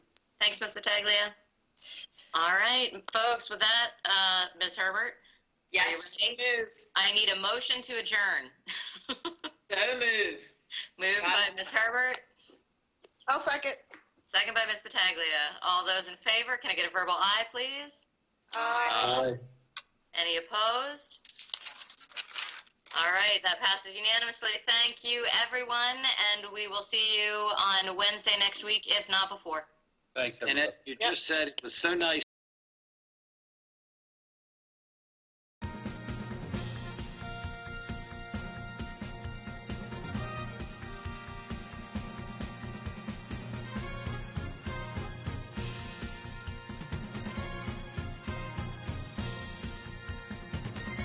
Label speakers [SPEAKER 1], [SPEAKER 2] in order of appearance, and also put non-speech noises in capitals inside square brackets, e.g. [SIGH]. [SPEAKER 1] Thanks, Ms. Pataglia. All right, folks, with that, uh, Ms. Herbert,
[SPEAKER 2] Yes.
[SPEAKER 1] Are you
[SPEAKER 2] Move.
[SPEAKER 1] I need a motion to adjourn. [LAUGHS]
[SPEAKER 2] So move.
[SPEAKER 1] Moved by Ms. Herbert,
[SPEAKER 2] I'll second.
[SPEAKER 1] second by Ms. Pataglia. All those in favor, can I get a verbal aye, please?
[SPEAKER 3] Aye.
[SPEAKER 1] Any opposed? All right, that passes unanimously. Thank you, everyone, and we will see you on Wednesday next week, if not before.
[SPEAKER 3] Thanks,
[SPEAKER 4] And
[SPEAKER 3] everybody.
[SPEAKER 4] it, you just said it was so nice